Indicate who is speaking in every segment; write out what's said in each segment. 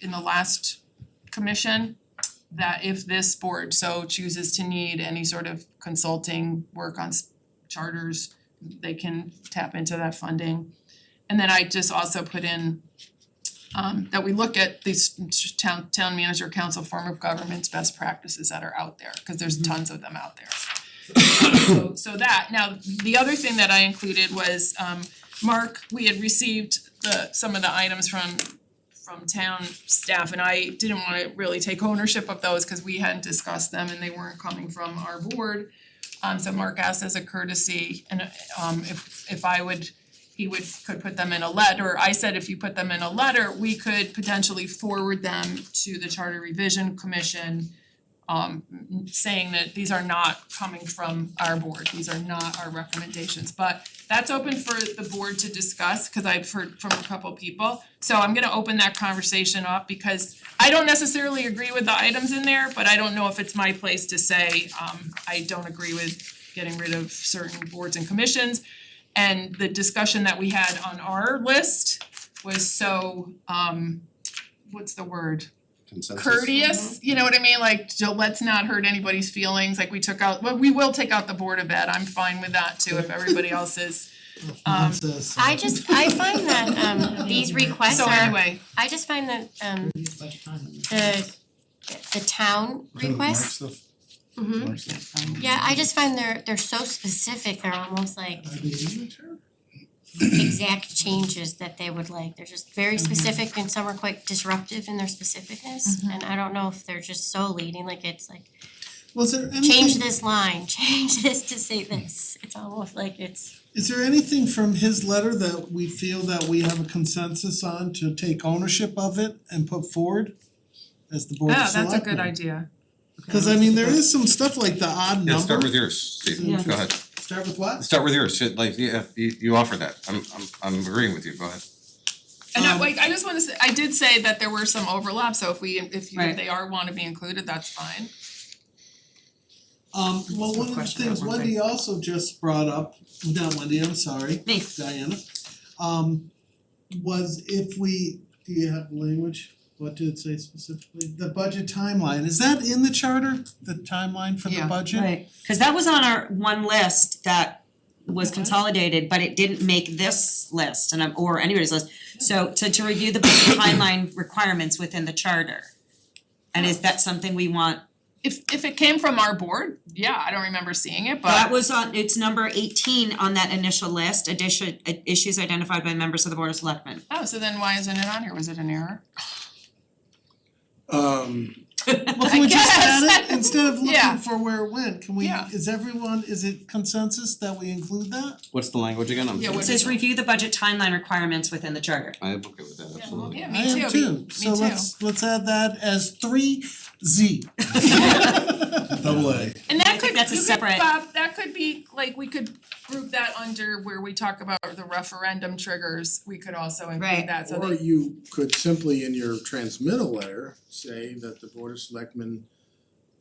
Speaker 1: in the last commission that if this board so chooses to need any sort of consulting work on s- charters, they can tap into that funding. And then I just also put in um that we look at these s- town town manager council form of government's best practices that are out there, cause there's tons of them out there. So so that, now the other thing that I included was um Mark, we had received the some of the items from from town staff and I didn't wanna really take ownership of those cuz we hadn't discussed them and they weren't coming from our board. Um so Mark asked as a courtesy and um if if I would he would could put them in a letter, I said if you put them in a letter, we could potentially forward them to the Charter Revision Commission um saying that these are not coming from our board, these are not our recommendations, but that's open for the board to discuss, cause I've heard from a couple people. So I'm gonna open that conversation up because I don't necessarily agree with the items in there, but I don't know if it's my place to say, um, I don't agree with getting rid of certain boards and commissions. And the discussion that we had on our list was so, um, what's the word?
Speaker 2: consensus.
Speaker 1: courteous, you know what I mean, like, so let's not hurt anybody's feelings, like we took out, well, we will take out the Board of Ed, I'm fine with that too, if everybody else is. Um,
Speaker 3: I just, I find that um these requests
Speaker 1: So
Speaker 3: are,
Speaker 1: anyway,
Speaker 3: I just find that
Speaker 4: Hmm.
Speaker 3: um the the town requests. Mhm. Yeah, I just find they're they're so specific, they're almost like exact changes that they would like, they're just very specific and some are quite disruptive in their specificness. And I don't know if they're just so leading, like it's like,
Speaker 4: Well, is there
Speaker 3: change
Speaker 4: anything,
Speaker 3: this line, change this to say this, it's almost like it's,
Speaker 4: is there anything from his letter that we feel that we have a consensus on to take ownership of it and put forward as the board of
Speaker 1: yeah, Oh, that's a
Speaker 4: selectmen?
Speaker 1: good idea.
Speaker 4: Cause I mean, there is some stuff like the odd number.
Speaker 2: Yeah, start with yours, Steve,
Speaker 4: Yeah.
Speaker 2: go ahead,
Speaker 4: Start with what?
Speaker 2: start with yours, Shit, like, yeah, you you offered that, I'm I'm I'm agreeing with you, go ahead.
Speaker 1: And I
Speaker 4: Um,
Speaker 1: like, I just wanna say, I did say that there were some overlaps, so if we, if you, if
Speaker 5: Right.
Speaker 1: they are wanna be included, that's fine.
Speaker 4: Um, well, one of the
Speaker 5: question,
Speaker 4: things
Speaker 5: that one
Speaker 4: Wendy also just brought up, not Wendy, I'm sorry,
Speaker 5: Me.
Speaker 4: Diana. Um, was if we, do you have language? What did it say specifically? The budget timeline, is that in the charter, the timeline for the
Speaker 1: Yeah,
Speaker 4: budget?
Speaker 5: Right, cause that was on our one list that was consolidated, but it didn't make this list and I'm, or anybody's list. So to to review the timeline requirements within the charter. And is that something we want,
Speaker 1: If if it came from our board, yeah, I don't remember seeing it,
Speaker 5: that
Speaker 1: but
Speaker 5: was on, it's number eighteen on that initial list, addition, i- issues identified by members of the board of selectmen.
Speaker 1: oh, so then why isn't it on here, was it an error?
Speaker 6: Um,
Speaker 4: Well, can
Speaker 1: I
Speaker 4: we just add
Speaker 1: guess.
Speaker 4: it, instead of
Speaker 1: Yeah.
Speaker 4: looking for where it went, can we,
Speaker 1: Yeah.
Speaker 4: is everyone, is it consensus that we include that?
Speaker 2: What's the language again, I'm
Speaker 1: Yeah,
Speaker 2: sorry.
Speaker 1: what-
Speaker 5: It says review the budget timeline requirements within the charter.
Speaker 2: I am okay with that, absolutely.
Speaker 1: Yeah, me
Speaker 4: I am
Speaker 1: too, me-
Speaker 4: too, so let's let's add that as three Z.
Speaker 6: double A.
Speaker 1: And that could, you
Speaker 5: that's a
Speaker 1: could,
Speaker 5: separate-
Speaker 1: Bob, that could be, like, we could group that under where we talk about the referendum triggers, we could also
Speaker 5: Right,
Speaker 1: include that, so
Speaker 6: Or
Speaker 1: that,
Speaker 6: you could simply in your transmittal letter say that the board of selectmen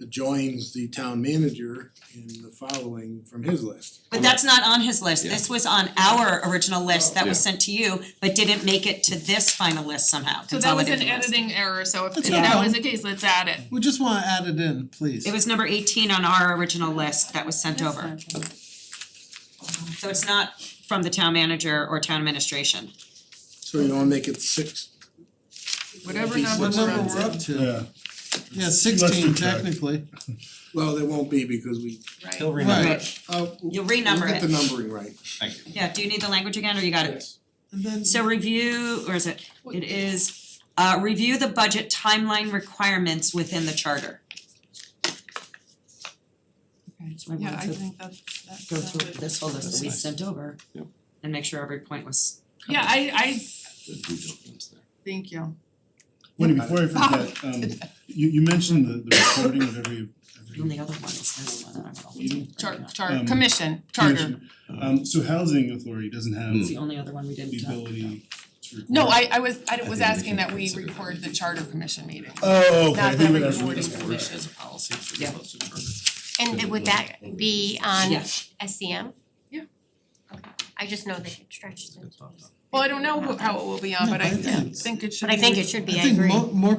Speaker 6: joins the town manager in the following from his list.
Speaker 5: But that's not on his list, this was on our original list that was
Speaker 2: Yeah.
Speaker 5: sent to you, but didn't make it to this final list somehow,
Speaker 1: so that was an
Speaker 5: consolidated list.
Speaker 1: editing error, so if if
Speaker 4: That's
Speaker 1: that
Speaker 4: fine.
Speaker 1: was the case, let's add it.
Speaker 4: We just wanna add it in, please.
Speaker 5: It was number eighteen on our original list that was sent over. Um, So it's not from the town manager or town administration.
Speaker 6: So you wanna make it six, uh,
Speaker 1: Whatever
Speaker 6: These
Speaker 1: number
Speaker 4: What
Speaker 6: ones
Speaker 1: we're
Speaker 4: number
Speaker 1: on.
Speaker 4: we're up to?
Speaker 7: Yeah,
Speaker 4: Yeah,
Speaker 7: Let's do
Speaker 4: sixteen
Speaker 7: that.
Speaker 4: technically.
Speaker 6: well, there won't be because we,
Speaker 1: right?
Speaker 4: Right.
Speaker 6: uh,
Speaker 5: You'll
Speaker 6: we'll
Speaker 5: renumber
Speaker 6: get the
Speaker 5: it.
Speaker 6: numbering right.
Speaker 2: Thank you.
Speaker 5: Yeah, do you need the language again or you got it?
Speaker 6: Yes.
Speaker 4: And then
Speaker 5: So review, or is it, it is, uh, review the budget timeline requirements within the charter. Okay, so I
Speaker 1: Yeah, I
Speaker 5: wanted to
Speaker 1: think that's that's uh,
Speaker 5: go through
Speaker 1: that's it.
Speaker 5: this whole list that we sent over
Speaker 2: Yep.
Speaker 5: and make sure every point was covered.
Speaker 1: Yeah, I I
Speaker 2: The due diligence there.
Speaker 1: thank you.
Speaker 7: Wendy, before I forget, um you you mentioned the the recording of every
Speaker 5: The only
Speaker 7: every
Speaker 5: other one is this one, I don't know.
Speaker 7: meeting.
Speaker 1: Char- char-
Speaker 7: Um,
Speaker 1: commission, charter.
Speaker 7: commission. Um so housing authority doesn't have
Speaker 5: It's the
Speaker 7: the
Speaker 5: only other one we didn't uh, talk about.
Speaker 7: ability to record.
Speaker 1: Hmm. No, I I was I
Speaker 2: I
Speaker 1: was
Speaker 2: think we
Speaker 1: asking
Speaker 2: can
Speaker 1: that we
Speaker 2: consider that.
Speaker 1: record the charter commission meeting.
Speaker 7: Oh, okay, I
Speaker 1: Not
Speaker 7: think
Speaker 1: that
Speaker 7: that's what
Speaker 1: recording
Speaker 7: this for.
Speaker 1: commission.
Speaker 2: As a policy for
Speaker 5: Yeah.
Speaker 2: close to charter.
Speaker 3: and would that be on
Speaker 5: Yeah.
Speaker 3: SCM?
Speaker 1: Yeah.
Speaker 3: Okay, I just know they it stretches
Speaker 2: Good
Speaker 3: into
Speaker 2: thought,
Speaker 3: these. Well, I don't know who- how it will be on, but I
Speaker 4: No, but I think it's-
Speaker 3: think it should
Speaker 1: But I
Speaker 3: be-
Speaker 1: think it should
Speaker 4: I
Speaker 1: be, I
Speaker 4: think
Speaker 1: agree.
Speaker 4: mo- more